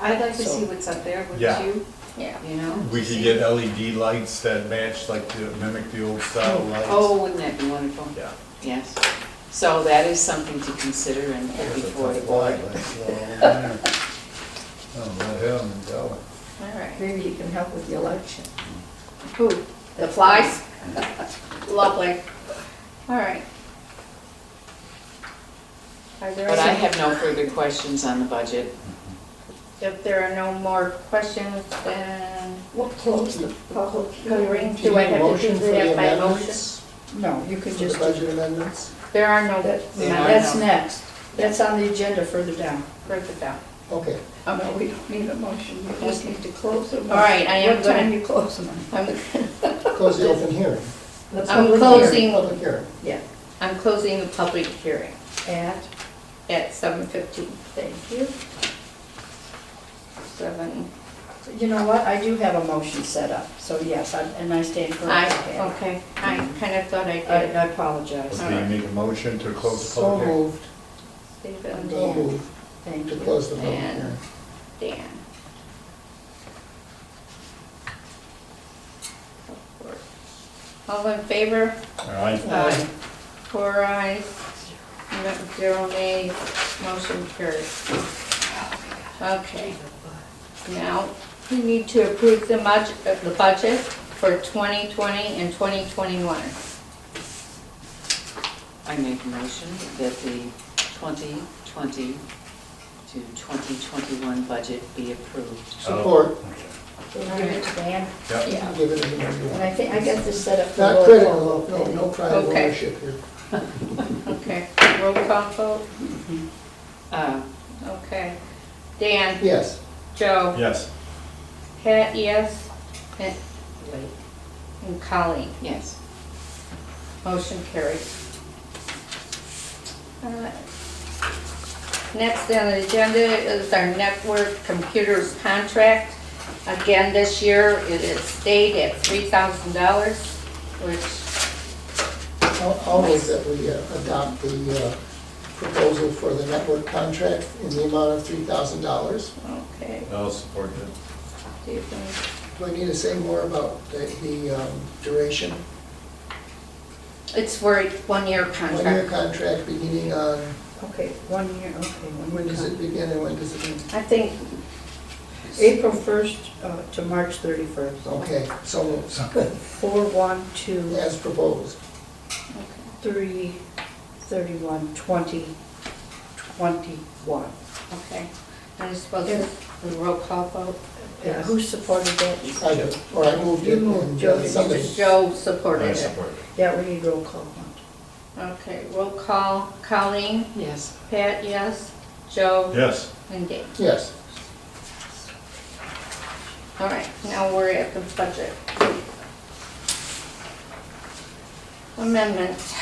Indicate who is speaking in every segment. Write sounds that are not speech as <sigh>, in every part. Speaker 1: I'd like to
Speaker 2: So-
Speaker 1: see what's up there, wouldn't
Speaker 3: Yeah.
Speaker 1: you?
Speaker 2: Yeah.
Speaker 1: You know?
Speaker 3: We could get LED lights that match, like to mimic the old style lights.
Speaker 1: Oh, wouldn't that be wonderful?
Speaker 3: Yeah.
Speaker 1: Yes. So that is something to consider and put
Speaker 3: There's a
Speaker 1: before the
Speaker 3: couple
Speaker 1: board.
Speaker 3: lights all over there. Oh, let him go.
Speaker 2: All right.
Speaker 4: Maybe you can help with the election.
Speaker 2: Who?
Speaker 4: The flies?
Speaker 2: Lovely. All right. Are there
Speaker 1: But I
Speaker 2: any-
Speaker 1: have no further questions on the budget.
Speaker 2: If there are no more questions, then
Speaker 4: We'll close the public hearing.
Speaker 2: hearing. Do I have to
Speaker 5: Motion
Speaker 2: do
Speaker 5: for the
Speaker 2: that by motion?
Speaker 5: amendments?
Speaker 4: No, you could
Speaker 5: For the
Speaker 4: just,
Speaker 5: budget amendments?
Speaker 2: There are no,
Speaker 4: that-
Speaker 1: There are
Speaker 4: that's
Speaker 1: no-
Speaker 4: next. That's on the agenda further down.
Speaker 2: further down.
Speaker 5: Okay.
Speaker 4: Oh, no, we don't need a motion, we just need to close them.
Speaker 2: All right, I am
Speaker 4: What
Speaker 2: gonna-
Speaker 4: time you close them? on?
Speaker 2: I'm,
Speaker 5: Close the open hearing.
Speaker 4: The
Speaker 2: I'm
Speaker 4: public
Speaker 2: closing.
Speaker 4: hearing.
Speaker 5: Public hearing.
Speaker 4: Yeah,
Speaker 2: I'm closing the public hearing
Speaker 4: at,
Speaker 2: at seven fifteen. Thank you. Seven,
Speaker 4: you know what, I do have a motion set up, so yes, I- and I stand
Speaker 2: I,
Speaker 4: corrected.
Speaker 2: okay, I kind of thought I
Speaker 4: I I
Speaker 2: did.
Speaker 4: apologize,
Speaker 3: Okay, you make a motion to close the
Speaker 5: So
Speaker 3: public hearing.
Speaker 5: moved,
Speaker 2: Stephen,
Speaker 5: so moved
Speaker 4: thank
Speaker 5: to
Speaker 4: you.
Speaker 5: close the public
Speaker 2: And-
Speaker 5: hearing.
Speaker 3: Oh.
Speaker 2: Dan. Support. All in favor?
Speaker 3: All right,
Speaker 1: Uh,
Speaker 2: Aye. Four ayes, no- zero nays, motion carries. Okay. Now, we need to approve the budget, the budget for 2020 and 2021.
Speaker 1: I make a motion that the 2020 to 2021 budget be approved.
Speaker 5: Support,
Speaker 4: Can I get to Dan?
Speaker 3: yep.
Speaker 4: Yeah.
Speaker 5: give it anywhere you
Speaker 4: And
Speaker 5: want.
Speaker 4: I think, I got this set up for
Speaker 5: Not
Speaker 4: roll
Speaker 5: critical,
Speaker 4: call.
Speaker 5: no, no pride of
Speaker 2: Okay.
Speaker 5: ownership here.
Speaker 2: Okay, roll call vote,
Speaker 1: Uh,
Speaker 2: okay. Dan?
Speaker 5: Yes,
Speaker 2: Joe?
Speaker 3: Yes,
Speaker 2: Pat, yes? And and Colleen?
Speaker 1: Yes.
Speaker 2: Motion carries. Uh, Next on the agenda is our network computers contract. Again, this year, it is stayed at $3,000, which,
Speaker 5: I'll I'll move that we uh, adopt the uh, proposal for the network contract in the amount of $3,000.
Speaker 2: okay,
Speaker 3: I'll support that.
Speaker 2: do you think-
Speaker 5: Do I need to say more about the- the um, duration?
Speaker 2: it's for a one-year
Speaker 5: One-year
Speaker 2: contract.
Speaker 5: contract beginning on,
Speaker 4: Okay, one year, okay. one
Speaker 5: when
Speaker 4: year
Speaker 5: does
Speaker 4: con-
Speaker 5: it begin and when does it end?
Speaker 2: I think,
Speaker 4: April 1st uh, to March 31st.
Speaker 5: Okay, so <laughs> moved.
Speaker 4: Four, one, two,
Speaker 5: as proposed.
Speaker 4: three, thirty-one, twenty, twenty-one.
Speaker 2: okay, I suppose it's the roll call vote.
Speaker 4: Yeah, Who supported that?
Speaker 5: I do, or I moved it
Speaker 4: You moved,
Speaker 5: and
Speaker 4: Joe.
Speaker 5: uh, somebody.
Speaker 2: Joe
Speaker 3: I
Speaker 2: supported it.
Speaker 3: support it.
Speaker 4: Yeah, we need roll call.
Speaker 2: Okay, roll call, Colleen,
Speaker 1: Yes.
Speaker 2: Pat, yes, Joe,
Speaker 3: Yes,
Speaker 2: and Dave.
Speaker 5: Yes,
Speaker 2: All right, now we're at the budget. Amendments.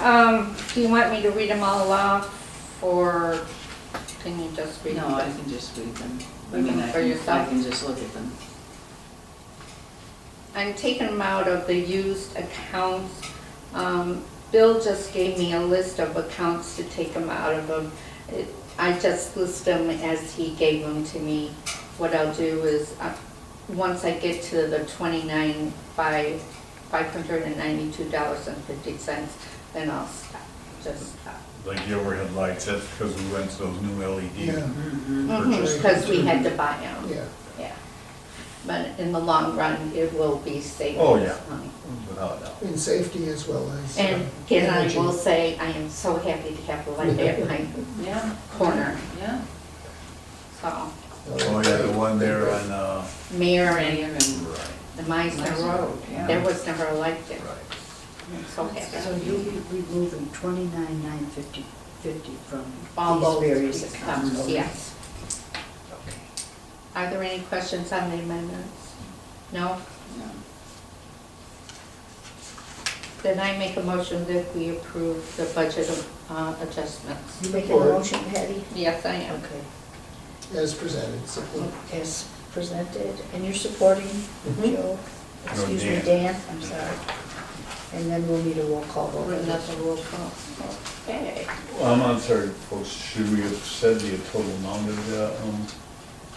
Speaker 2: Um, do you want me to read them all off, or can you just read
Speaker 1: No, I
Speaker 2: them?
Speaker 1: can just read them. I mean, I
Speaker 2: For
Speaker 1: can, I
Speaker 2: yourself?
Speaker 1: can just look at them.
Speaker 2: I'm taking them out of the used accounts. Um, Bill just gave me a list of accounts to take them out of them. It- I just list them as he gave them to me. What I'll do is, uh, once I get to the twenty-nine five, five hundred and ninety-two dollars and fifty cents, then I'll stop, just stop.
Speaker 3: like the overhead lights, that's because we went to those new E LED.
Speaker 5: yeah,
Speaker 1: Mm-hmm.
Speaker 3: Purchase.
Speaker 2: Because we had to buy them,
Speaker 5: yeah.
Speaker 2: yeah. But in the long run, it will be saving
Speaker 3: Oh,
Speaker 2: us
Speaker 3: yeah.
Speaker 2: money.
Speaker 3: Without a doubt.
Speaker 5: In safety as well as. uh,
Speaker 2: And again, I
Speaker 5: energy. Uh,
Speaker 2: will say, I am so happy to have the light at <laughs> my
Speaker 1: Yeah,
Speaker 2: corner,
Speaker 1: yeah.
Speaker 2: so,
Speaker 3: Oh, yeah, the one there on, uh,
Speaker 2: Mayor and
Speaker 1: Mayor and-
Speaker 3: right,
Speaker 2: the Meisner Road. There was never a light there, I'm
Speaker 4: So
Speaker 2: so happy.
Speaker 4: you'll be removing twenty-nine, nine, fifty, fifty from
Speaker 2: All
Speaker 4: these
Speaker 2: those
Speaker 4: various
Speaker 2: accounts,
Speaker 4: accounts.
Speaker 2: yes. Are there any questions on the amendments? No?
Speaker 1: No.
Speaker 2: Then I make a motion that we approve the budget uh, adjustments.
Speaker 4: You making a motion, Patty?
Speaker 2: Yes, I am.
Speaker 4: Okay.
Speaker 5: As presented, support.
Speaker 4: As presented, and you're supporting Joe? Excuse me,
Speaker 3: Dan.
Speaker 4: Dan, I'm sorry. And then we'll need a roll call vote.
Speaker 2: We're not a roll call. Okay.
Speaker 3: Well, I'm I'm sorry, folks, should we have said the total amount of the, um,